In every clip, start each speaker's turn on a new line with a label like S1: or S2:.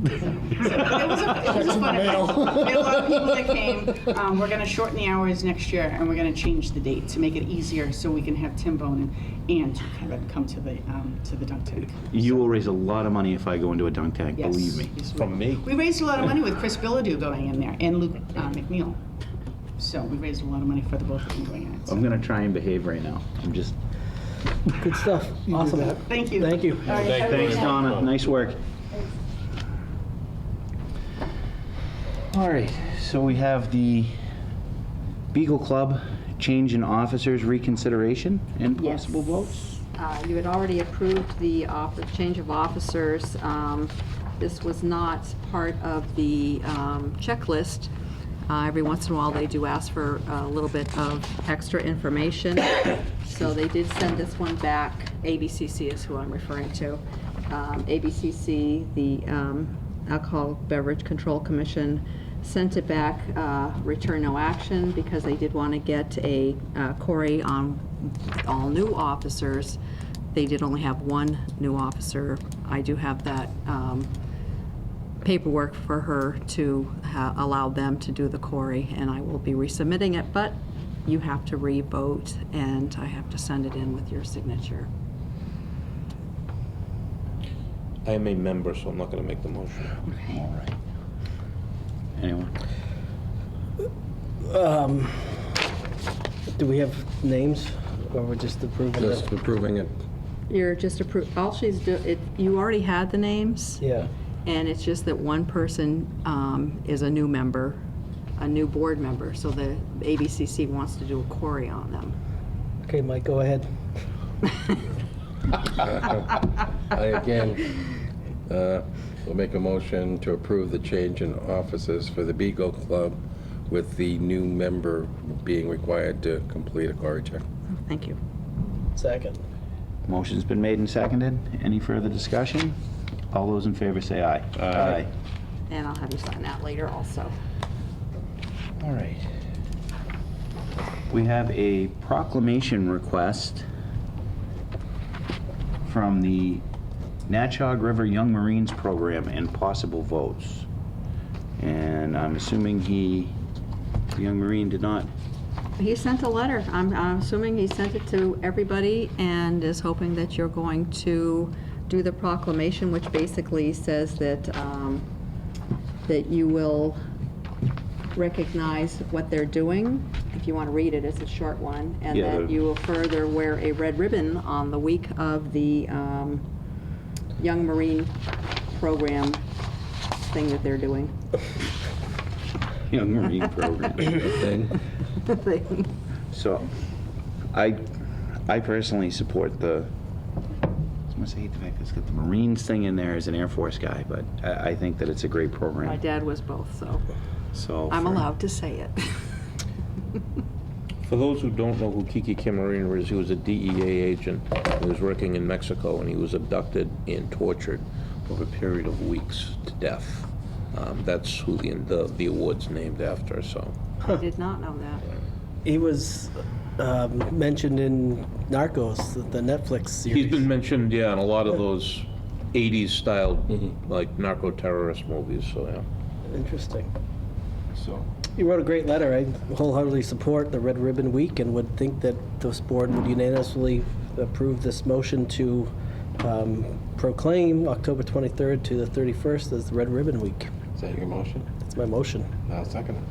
S1: But it was a, it was a fun event.
S2: Mail.
S1: We had a lot of people that came. Um, we're gonna shorten the hours next year, and we're gonna change the date to make it easier, so we can have Tim Bonin and Kevin come to the, um, to the dunk tank.
S3: You will raise a lot of money if I go into a dunk tank,
S1: Yes.
S3: believe me.
S1: Yes, we
S2: From
S1: will.
S2: me?
S1: We raised a lot of money with Chris Billadu going in there, and Luke uh, McNeil. So we raised a lot of money for the both of them going in.
S3: I'm
S1: So,
S3: gonna try and behave right now. I'm just,
S4: Good stuff. Awesome.
S1: Thank you.
S4: Thank you.
S1: All right, have a good
S3: thanks,
S1: night.
S3: Donna, nice work. All right, so we have the Beagle Club change in officers reconsideration and
S5: Yes.
S3: possible votes?
S5: Uh, You had already approved the off- change of officers. Um, This was not part of the um, checklist. Uh, Every once in a while, they do ask for a little bit of extra information. So they did send this one back. ABCC is who I'm referring to. Um, ABCC, the um, Alcohol Beverage Control Commission, sent it back, uh, return no action, because they did want to get a uh, query on all new officers. They did only have one new officer. I do have that um, paperwork for her to ha- allow them to do the query, and I will be resubmitting it, but you have to re-vote, and I have to send it in with your signature.
S6: I am a member, so I'm not going to make the motion.
S3: All right. Anyone?
S4: Um, Do we have names or we're just approving
S7: Just
S4: it?
S7: approving it.
S5: You're just approved, all she's, do- it- you already had the names.
S4: Yeah.
S5: And it's just that one person um, is a new member, a new board member, so the ABCC wants to do a query on them.
S4: Okay, Mike, go ahead.
S7: I again uh, will make a motion to approve the change in offices for the Beagle Club with the new member being required to complete a query check.
S5: Thank you.
S4: Second.
S3: Motion's been made and seconded. Any further discussion? All those in favor say aye. Aye.
S5: And I'll have you sign that later also.
S3: All right. We have a proclamation request from the Natchog River Young Marines Program and possible votes. And I'm assuming he, the Young Marine did not,
S5: He sent a letter. I'm, I'm assuming he sent it to everybody and is hoping that you're going to do the proclamation, which basically says that, um, that you will recognize what they're doing. If you want to read it, it's a short one. And
S3: Yeah,
S5: that
S3: the-
S5: you will further wear a red ribbon on the week of the, um, Young Marine Program thing that they're doing.
S3: Young Marine Program.
S7: Thing?
S3: So I, I personally support the, I must hate the fact that it's got the Marines thing in there as an Air Force guy, but I, I think that it's a great
S5: My
S3: program,
S5: dad was both, so
S3: so.
S5: I'm
S3: for-
S5: allowed to say it.
S6: For those who don't know who Kiki Camarena is, he was a DEA agent who was working in Mexico, and he was abducted and tortured over a period of weeks to death. Um, That's who the- the, the award's named after, so.
S5: I did not know that.
S4: He was um, mentioned in Narcos, the- the Netflix series.
S6: He's been mentioned, yeah, in a lot of those 80s-style, like, narco-terrorist movies, so, yeah.
S4: Interesting.
S6: So.
S4: You wrote a great letter. I wholeheartedly support the Red Ribbon Week and would think that this board would unanimously approve this motion to um, proclaim October 23rd to the 31st as the Red Ribbon Week.
S7: Is that your motion?
S4: That's my motion.
S7: I'll second it.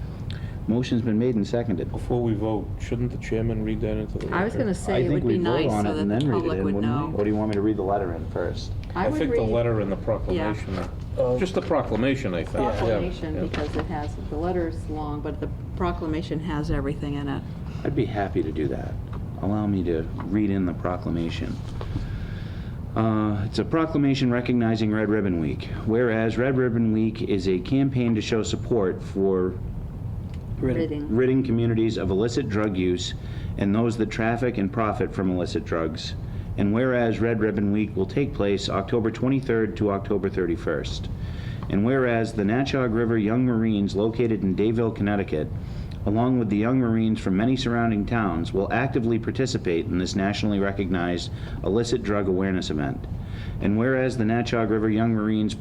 S3: Motion's been made and seconded.
S6: Before we vote, shouldn't the chairman read that into the
S5: I was going to say,
S3: I
S5: it
S3: think
S5: would
S3: we
S5: be
S3: vote
S5: nice
S3: on
S5: so
S3: it
S5: that
S3: and
S5: the
S3: then read it
S5: public
S3: in,
S5: would
S3: wouldn't we? Or
S5: know.
S3: do you want me to read the letter in first?
S6: I
S5: would
S6: think the
S5: read
S6: letter and the proclamation, are-
S4: Oh.
S6: just the proclamation, I think. yeah.
S5: Proclamation,
S6: Yeah.
S5: because it has, the letter's long, but the proclamation has everything in it.
S3: I'd be happy to do that. Allow me to read in the proclamation. Uh, It's a proclamation recognizing Red Ribbon Week. Whereas Red Ribbon Week is a campaign to show support for
S5: Ridding.
S3: ridding communities of illicit drug use and those that traffic and profit from illicit drugs. And whereas Red Ribbon Week will take place October 23rd to October 31st. And whereas the Natchog River Young Marines located in Dayville, Connecticut, along with the Young Marines from many surrounding towns, will actively participate in this nationally recognized illicit drug awareness event. And whereas the Natchog River Young Marines